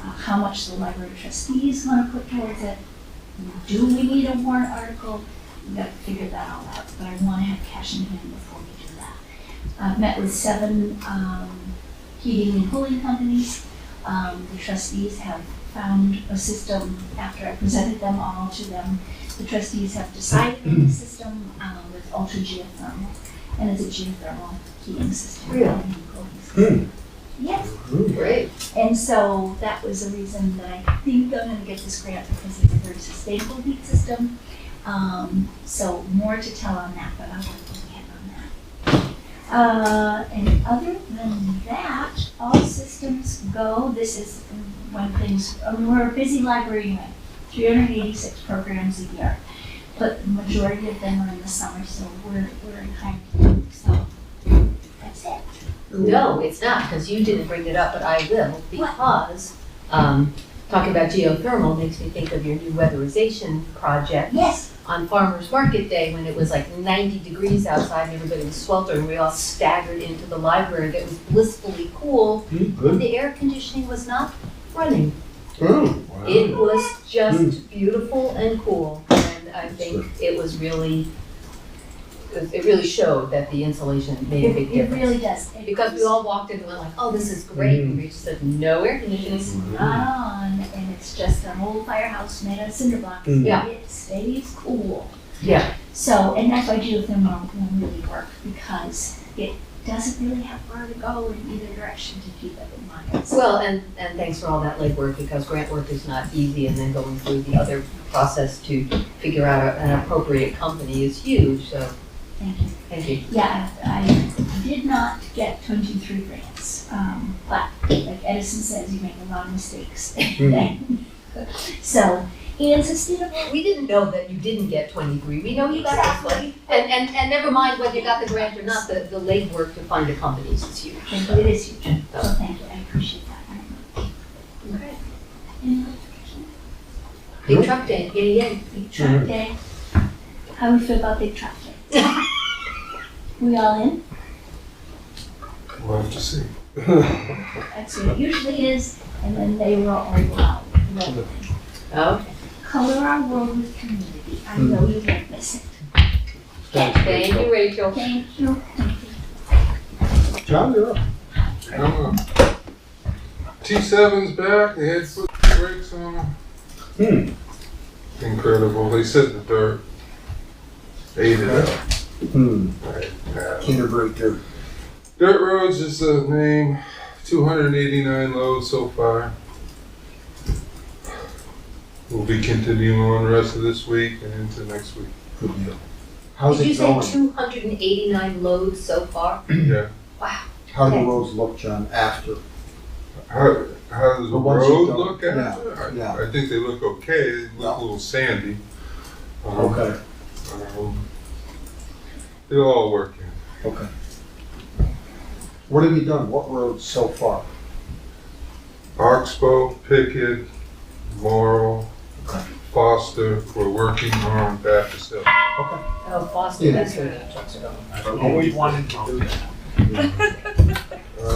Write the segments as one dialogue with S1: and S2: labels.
S1: how much the library trustee is gonna put towards it. Do we need a warrant article? We gotta figure that all out, but I wanna have cash in hand before we do that. Uh, met with seven, um, heating and cooling companies. Um, the trustees have found a system, after I presented them all to them, the trustees have decided on the system, uh, with ultra geothermal. And it's a geothermal heating system.
S2: Really?
S1: and cooling system. Yes.
S2: Great.
S1: And so that was the reason that I think I'm gonna get this grant because it's a very sustainable heat system. Um, so more to tell on that, but I'll work with Ken on that. Uh, and other than that, all systems go. This is one thing, I mean, we're a busy library anyway, three hundred and eighty-six programs a year. But the majority of them are in the summer, so we're, we're in high, so that's it.
S2: No, it's not, because you didn't bring it up, but I will, because, um, talking about geothermal makes me think of your new weatherization project
S1: Yes,
S2: on Farmers Market Day, when it was like ninety degrees outside, and everybody was sweltering, we all staggered into the library, that was blissfully cool, and
S3: Good.
S2: the air conditioning was not running.
S3: Oh, wow.
S2: It was just beautiful and cool, and I think it was really, it really showed that the insulation
S1: it,
S2: made a big
S1: it
S2: difference.
S1: really does. It
S2: Because we
S1: was-
S2: all walked in and went like, oh, this is great,
S3: Mm-hmm.
S2: and we just said, no air conditioning.
S1: It's not on, and it's just an old firehouse made out of cinder blocks.
S3: Mm.
S2: Yeah.
S1: It stays cool.
S2: Yeah.
S1: So, and that's why geothermal will really work, because it doesn't really have where to go in either direction to keep it in line. So
S2: Well, and, and thanks for all that legwork, because grant work is not easy, and then going through the other process to figure out a- an appropriate company is huge, so,
S1: Thank you.
S2: thank you.
S1: Yeah, I I did not get twenty-three grants, um, but like Edison says, you make a lot of mistakes. So, and sustainable,
S2: We didn't know that you didn't get twenty-three, we know you got this one. And, and, and never mind whether you got the grant or not, the, the legwork to find a company is huge.
S1: thank you, it is huge. So thank you, I appreciate that very much.
S2: Okay.
S1: Any other
S2: Big truck day, yay, yay.
S1: Big Truck Day. How we feel about Big Truck Day? we all in?
S3: We'll have to see.
S1: That's what it usually is, and then they were all loud. Loud.
S2: Okay.
S1: Color our world with community. I know you won't miss it.
S2: Thank you, Rachel.
S1: Thank you.
S3: John, you're up.
S4: Come on. T7's back. They had put the brakes on them.
S3: Hmm.
S4: Incredible. They sit in the dirt. They ate it up.
S3: Hmm.
S4: Yeah.
S3: Kinderbreaker.
S4: Dirt roads is the name. 289 loads so far. We'll be continuing on the rest of this week and into next week.
S3: Good deal. How's
S2: Did you
S3: it going?
S2: say 289 loads so far?
S4: yeah.
S3: How do
S2: Okay.
S3: the roads look, John, after?
S4: How, how does the
S3: But once you
S4: road
S3: go-
S4: look
S3: yeah,
S4: after? I-
S3: yeah.
S4: I, think they look okay. They look
S3: Yeah.
S4: a little sandy. Um,
S3: Okay,
S4: Um, It'll all work out.
S3: okay. What have you done? What roads so far?
S4: Oxbow, Pickett, Morrow,
S3: Okay.
S4: Foster, we're working on Baptist Hill.
S2: Oh, Foster,
S3: Yeah.
S2: that's where the trucks are going.
S5: I've always wanted to do that.
S4: Uh,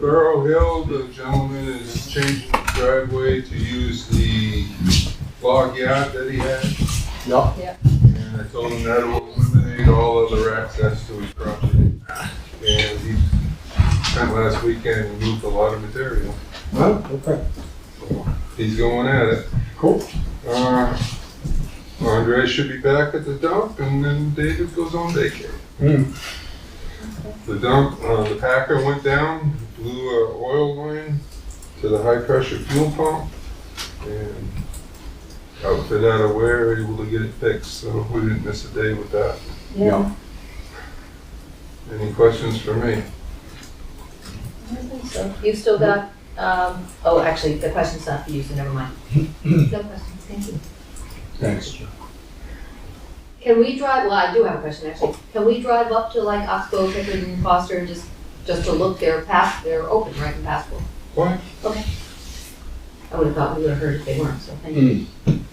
S4: Borough Hill, the gentleman is changing the driveway to use the log yacht that he had.
S3: Yeah.
S4: And I told him that will eliminate all other access to his property. And he spent last weekend, and moved a lot of material.
S3: Huh? Okay,
S4: He's going at it.
S3: cool.
S4: Uh, Andre should be back at the dump, and then David goes on daycare.
S3: Hmm.
S4: The dump, uh, the packer went down, blew a oil line to the high pressure fuel pump, and outfit out of where able to get it fixed, so we didn't miss a day with that.
S3: Yeah.
S4: Any questions for me?
S2: I don't think so. You've still got, um, oh, actually, the question's not for you, so never mind. No questions, thank you.
S3: Thanks, John.
S2: Can we drive, well, I do have a question, actually. Can we drive up to like Oxbow, Pickett, and Foster and just, just to look, they're past, they're open, right, and passable?
S4: What?
S2: I would have thought we would have heard if they weren't, so thank you.
S3: Hmm.